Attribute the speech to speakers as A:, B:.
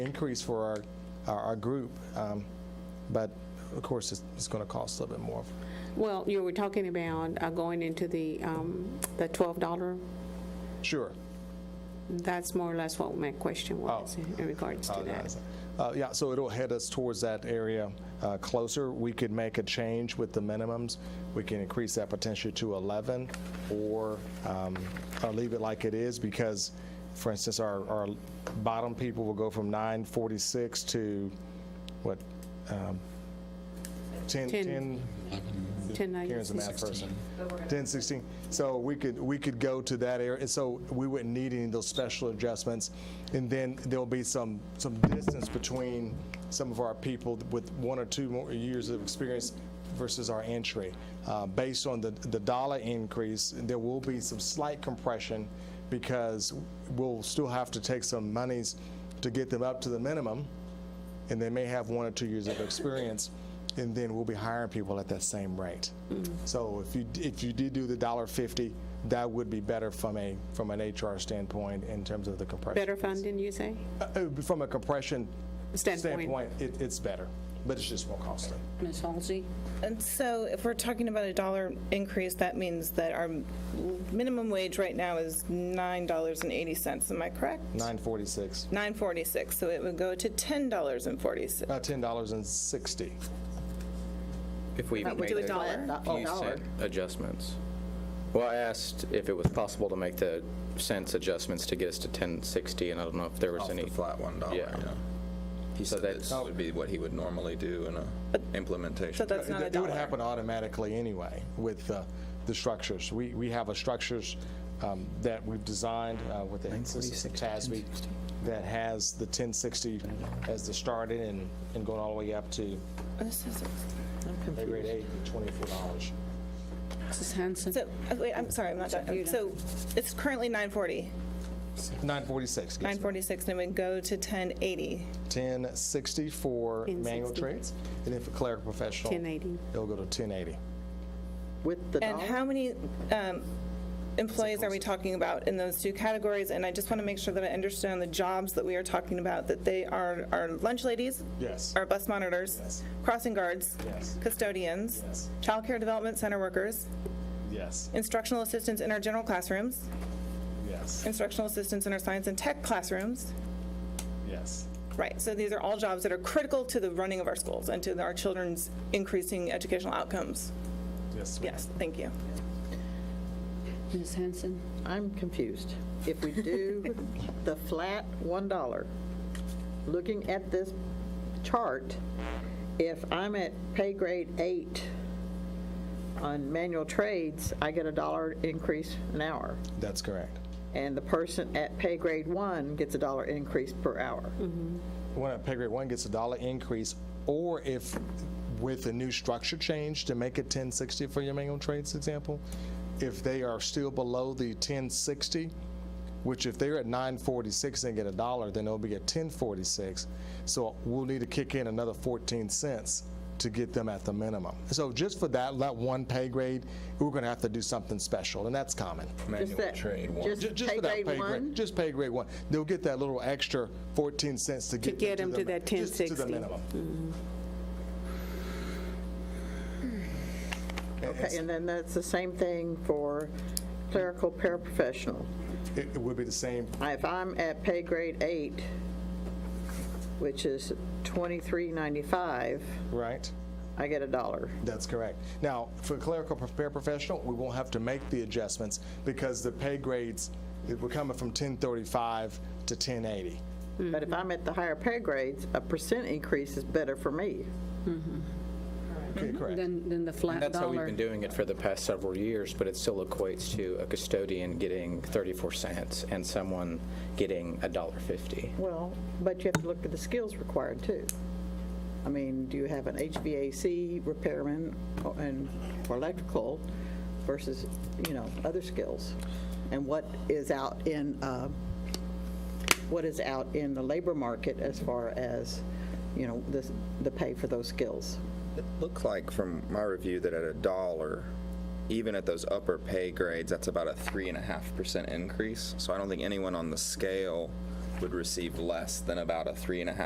A: increase for our, our, our group, um, but of course, it's, it's going to cost a little bit more.
B: Well, you were talking about uh, going into the, um, the $12.
A: Sure.
B: That's more or less what my question was in regards to that.
A: Uh, yeah, so it'll head us towards that area uh, closer. We could make a change with the minimums. We can increase that potentially to 11 or, um, or leave it like it is because, for instance, our, our bottom people will go from 946 to what? um, 10,
B: Ten.
A: 10,
B: 10.96.
A: Karen's a math person. 10, 16. So we could, we could go to that area, and so we wouldn't need any of those special adjustments. And then there'll be some, some distance between some of our people with one or two more years of experience versus our entry. Uh, Based on the, the dollar increase, there will be some slight compression because we'll still have to take some monies to get them up to the minimum and they may have one or two years of experience, and then we'll be hiring people at that same rate.
B: Mm.
A: So if you, if you did do the dollar fifty, that would be better from a, from an HR standpoint in terms of the compression.
B: Better funding, you say?
A: Uh, uh, From a compression
B: Standpoint.
A: standpoint, it, it's better, but it's just more costly.
C: Ms. Halsey?
D: And so if we're talking about a dollar increase, that means that our minimum wage right now is $9.80, am I correct?
A: Nine forty-six,
D: 9.46, so it would go to $10.46.
A: about ten dollars and sixty.
E: If we even
D: we
E: made
D: do a
E: the
D: dollar?
C: A
E: few
C: dollar.
E: cent adjustments. Well, I asked if it was possible to make the cents adjustments to get us to 1060, and I don't know if there was
F: Off
E: any.
F: the flat one dollar,
E: Yeah.
F: yeah. He
E: So
F: said that
E: that's-
F: this would be what he would normally do in a implementation.
D: So that's not a
A: It would
D: dollar.
A: happen automatically anyway with uh, the structures. We, we have a structures um, that we've designed uh, with the assistance of TASB that has the 1060 as the starting and, and going all the way up to
D: This is-
A: pay grade eight, $24.
C: Mrs. Hanson?
D: So, oh, wait, I'm sorry, I'm not done. So it's currently 9.40,
A: 946. yes, ma'am.
D: 9.46, and it would go to 10.80.
A: 1060 for manual
B: 1060.
A: trades, and then for clerical professional,
B: 1080.
A: it'll go to 1080.
C: With the
D: And
C: dollar?
D: how many um, employees are we talking about in those two categories? And I just want to make sure that I understand the jobs that we are talking about, that they are our lunch ladies?
A: Yes.
D: Our bus monitors? Crossing guards?
A: Yes.
D: Custodians?
A: Yes.
D: child care development center workers?
A: Yes,
D: Instructional assistants in our general classrooms?
A: yes,
D: Instructional assistants in our science and tech classrooms?
A: yes.
D: Right, so these are all jobs that are critical to the running of our schools and to our children's increasing educational outcomes.
A: Yes, ma'am.
D: Yes, thank you.
C: Ms. Hanson?
G: I'm confused. If we do the flat $1, looking at this chart, if I'm at pay grade eight on manual trades, I get a dollar increase an hour.
A: That's correct.
G: And the person at pay grade one gets a dollar increase per hour.
A: when a pay grade one gets a dollar increase, or if with a new structure change to make it 1060 for your manual trades example, if they are still below the 1060, which if they're at 946 and get a dollar, then they'll be at 1046. So we'll need to kick in another 14 cents to get them at the minimum. So just for that, that one pay grade, we're going to have to do something special, and that's common.
F: Manual
G: that-
F: trade one.
G: just-
A: Ju- Just
G: Pay
A: for that
G: grade one?
A: Just pay grade one. They'll get that little extra 14 cents to get
B: get them to
A: the-
B: that Mm.
A: just To the
B: 1060.
A: minimum.
G: Okay, and then that's the same thing for clerical paraprofessional.
A: It it would be the same,
G: If I'm at pay grade eight, which is 2395,
A: right?
G: I get a dollar.
A: That's correct. Now, for clerical prepare professional, we won't have to make the adjustments because the pay grades, it- we're coming from 1035 to 1080.
G: But if I'm at the higher pay grades, a percent increase is better for me.
A: Okay, correct.
C: Then, then the flat dollar?
E: That's how we've been doing it for the past several years, but it still equates to a custodian getting 34 cents and someone getting a dollar 50.
G: Well, but you have to look at the skills required too. I mean, do you have an HVAC repairman or- and or electrical versus, you know, other skills? And what is out in, uh, what is out in the labor market as far as, you know, this- the pay for those skills?
F: It looked like from my review that at a dollar, even at those upper pay grades, that's about a three and a half percent increase. So I don't think anyone on the scale would receive less than about a three and a half